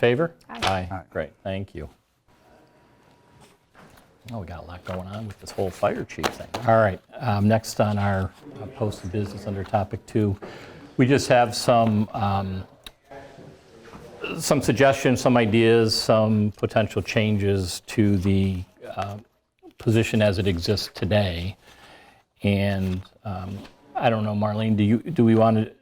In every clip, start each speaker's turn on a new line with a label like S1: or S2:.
S1: Favor?
S2: Aye.
S1: Aye, great, thank you. Oh, we got a lot going on with this whole fire chief thing. All right, um, next on our uh, posted business under topic two, we just have some, um, some suggestions, some ideas, some potential changes to the uh, position as it exists today. And um, I don't know, Marlene, do you, do we want to,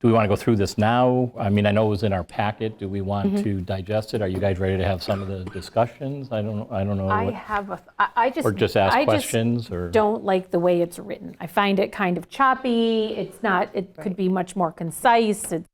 S1: do we want to go through this now? I mean, I know it was in our packet. Do we want to digest it? Are you guys ready to have some of the discussions? I don't, I don't know.
S2: I
S1: what-
S2: have a, I I just.
S1: Or just ask
S2: I just
S1: questions, or-
S2: Don't like the way it's written. I find it kind of choppy. It's not, it could be much more concise. It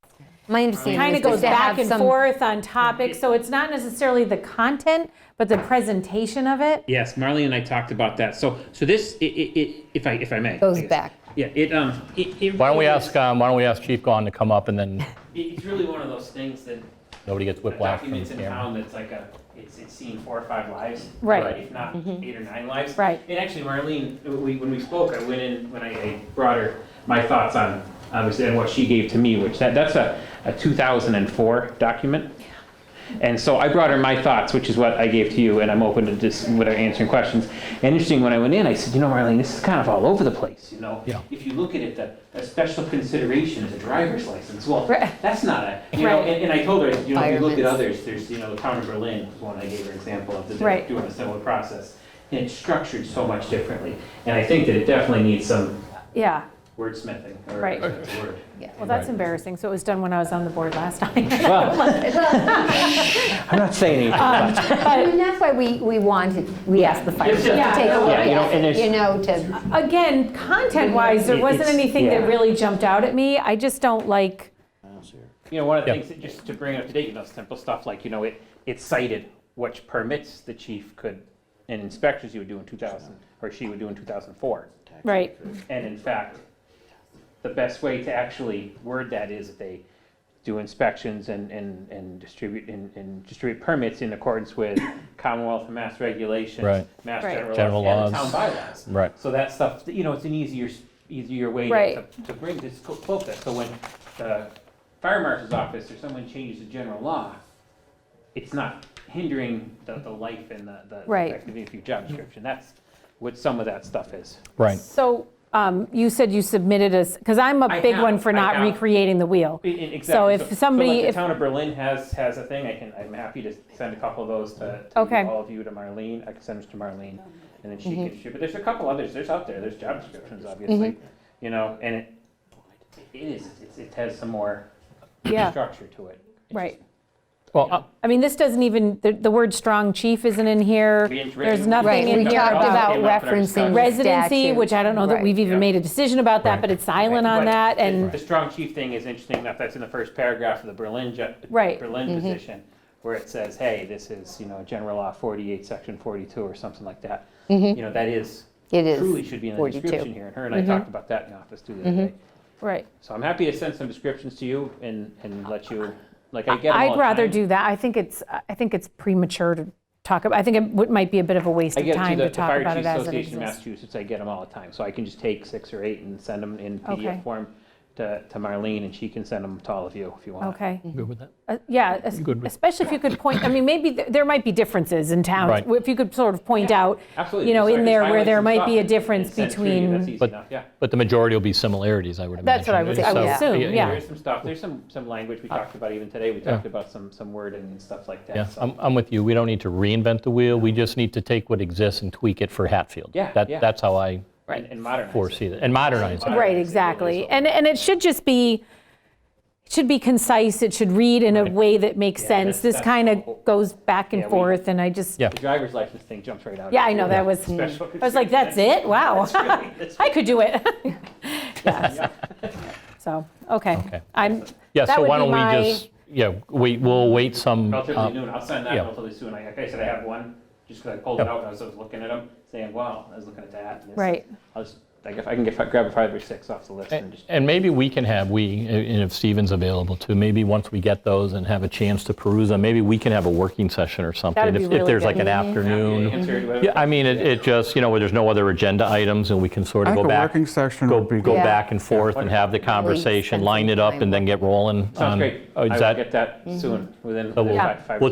S3: My understanding
S2: kind
S3: is
S2: of goes
S3: to have
S2: back and
S3: some-
S2: forth on topics. So it's not necessarily the content, but the presentation of it.
S4: Yes, Marlene and I talked about that. So, so this, i- i- i- if I, if I may.
S3: Goes back.
S4: Yeah, it, um, it. it
S1: Why don't we
S4: really
S1: ask, um, why don't we ask Chief Gahn to come up and then
S4: is- It's really one of those things that
S1: nobody gets whiplash from the
S4: documents in
S1: camera?
S4: town that's like a, it's, it's seen four or five lives.
S2: Right. Mm-hmm.
S4: If not eight or nine lives.
S2: Right.
S4: And actually, Marlene, we, when we spoke, I went in, when I I brought her my thoughts on, obviously, and what she gave to me, which that, that's a, a 2004 document. And so I brought her my thoughts, which is what I gave to you, and I'm open to just what are answering questions. And interesting, when I went in, I said, you know, Marlene, this is kind of all over the place, you know?
S1: Yeah.
S4: If you look at it, the, a special consideration is a driver's license. Well,
S2: Right.
S4: that's not a, you know,
S2: Right.
S4: and, and I told her, you know, if you look
S3: Fireman's.
S4: at others, there's, you know, the town of Berlin was one I gave her example of, that
S2: Right.
S4: they're doing a similar process. And it's structured so much differently. And I think that it definitely needs some
S2: Yeah.
S4: wordsmithing, or
S2: Right.
S4: that's the word.
S2: Well, that's embarrassing. So it was done when I was on the board last time.
S4: I'm not saying anything.
S2: Um,
S3: I mean, that's why we, we wanted, we asked the fire chief to
S2: Yeah.
S3: take a look
S4: Yeah, you know,
S3: at
S4: and
S3: it, you
S4: there's-
S3: know, to,
S2: Again, content-wise, there
S4: It-
S2: wasn't
S4: it's-
S2: anything that
S4: yeah.
S2: really jumped out at me. I just don't like,
S4: You know, one of the
S1: Yeah.
S4: things, that just to bring up to date, you know, simple stuff like, you know, it, it cited which permits the chief could, and inspections he would do in 2000, or she would do in 2004.
S2: right,
S4: And in fact, the best way to actually word that is that they do inspections and, and, and distribute, and, and distribute permits in accordance with Commonwealth and Mass regulations,
S1: Right.
S4: Mass
S2: Right.
S4: general
S1: General
S4: laws, and town
S1: laws.
S4: bylaws.
S1: Right.
S4: So that stuff, you know, it's an easier, s- easier way to,
S2: Right.
S4: to bring this co- close that. So when the fire marshal's office or someone changes the general law, it's not hindering the, the life and the, the
S2: Right.
S4: effectivity of your job description. That's what some of that stuff is.
S1: Right,
S2: So um, you said you submitted us, because I'm a
S4: I
S2: big
S4: have,
S2: one for
S4: I
S2: not
S4: have.
S2: recreating the wheel.
S4: I- I- Exactly.
S2: So if somebody-
S4: like the
S2: if-
S4: town of Berlin has, has a thing, I can, I'm happy to send a couple of those to, to
S2: Okay. Mm-hmm.
S4: all of you, to Marlene, I can send this to Marlene, and then she can shoot, but there's a couple others, there's out there, there's job descriptions, obviously, you know, and it, it is, it's- it has some more
S2: Yeah,
S4: structure to it. It's
S2: right.
S1: well, uh,
S2: I mean, this doesn't even, the- the word "strong chief" isn't in here.
S4: We didn't-
S2: There's
S3: right,
S2: nothing
S3: we
S2: in
S3: talked
S2: here about
S3: about
S4: Came up in our
S3: referencing
S4: discussion.
S2: residency,
S3: statute.
S2: which I don't know that
S3: Right.
S2: we've even
S4: Yeah.
S2: made a decision about that,
S1: Right.
S2: but it's silent on
S4: But
S2: that,
S4: the-
S2: and,
S4: The strong chief thing is interesting enough, that's in the first paragraph of the Berlin, ju-
S2: Right. Mm-hmm.
S4: Berlin position, where it says, hey, this is, you know, General Law 48, Section 42, or something like that. You
S2: Mm-hmm.
S4: know, that is,
S3: It is
S4: truly should be in the
S3: 42.
S4: description here, and her and I talked about that in the office too
S2: Mm-hmm.
S4: the other day.
S2: right.
S4: So I'm happy to send some descriptions to you and, and let you, like, I get them all
S2: I'd
S4: the
S2: rather
S4: time.
S2: do that. I think it's, I think it's premature to talk about, I think it would- might be a bit of a waste
S4: I
S2: of
S4: get it to
S2: time
S4: the
S2: to
S4: the
S2: talk
S4: Fire
S2: about it
S4: Chiefs
S2: as it
S4: Association of
S2: exists.
S4: Massachusetts, I get them all the time, so I can just take six or eight and send them in
S2: Okay.
S4: PDF form to, to Marlene, and she can send them to all of you if you want.
S2: Okay.
S1: good with that?
S2: Uh, Yeah, es-
S1: good with-
S2: especially if you could point, I mean, maybe th- there might be differences in towns.
S1: Right.
S2: If you could sort of point out,
S4: Absolutely.
S2: you know,
S4: So I
S2: in
S4: just
S2: there where
S4: highlight
S2: there
S4: some
S2: might
S4: stuff
S2: be a
S4: and- and
S2: difference
S4: send it to you. That's
S2: between,
S4: easy
S1: But-
S4: enough, yeah.
S1: But the majority will be similarities, I would imagine.
S2: That's what I would- I would
S1: So,
S2: assume, yeah.
S4: There's some stuff, there's some, some language we talked about even today, we talked about some, some wording and stuff like that.
S1: Uh, Yeah,
S4: so-
S1: I'm, I'm with you. We don't need to reinvent the wheel. We just need to take what exists and tweak it for Hatfield.
S4: Yeah,
S1: That-
S4: yeah.
S1: That's how I
S4: And and modernize. it.
S1: foresee it, and modernize it.
S2: right,
S4: Modernize it,
S2: exactly.
S4: is what
S2: And, and it should just be, it should be concise, it should read in a way that makes sense.
S4: that's-
S2: This
S4: that's
S2: kind
S4: the whole-
S2: of goes back
S4: Yeah,
S2: and
S4: we-
S2: forth, and I just,
S1: Yeah.
S4: The driver's license thing jumps right out.
S2: yeah,
S4: at
S2: I
S4: you.
S2: know, that was,
S4: Special
S2: I was like, that's it? Wow.
S4: really- that's
S2: I could do it. Yeah, so- So, okay.
S1: Okay.
S2: I'm,
S1: Yeah,
S2: that
S1: so
S2: would
S1: why
S2: be
S1: don't
S2: my-
S1: we just, yeah, we, we'll wait some,
S4: Relatively
S1: uh,
S4: noon, I'll send that
S1: yeah.
S4: relatively soon. I- Like I said, I have one, just because I pulled it
S1: Yeah.
S4: out and I was I was looking at them, saying, wow, I was looking at that. and this.
S2: Right.
S4: I'll just, Like if I can get, grab a five or six off the list and just,
S1: And maybe we can have, we, and if Steven's available too, maybe once we get those and have a chance to peruse them, maybe we can have a working session or something.
S2: That'd be
S1: if- If
S2: really
S1: there's
S2: good.
S1: like an
S2: Mhm.
S1: afternoon.
S4: answer it, whatever.
S1: Yeah, I mean, it, it just, you know, where there's no other agenda items and we can sort
S5: I
S1: of go
S5: think a
S1: back.
S5: working session
S1: Go,
S5: would be
S1: go
S5: good.
S1: back and forth and have the conversation, line it up and then get rolling.
S4: Sounds
S1: on-
S4: great.
S1: Oh,
S4: I
S1: Is
S4: will
S1: that
S2: Mm-hmm.
S4: get that soon, within
S1: So we'll-
S4: within five. five or
S1: we'll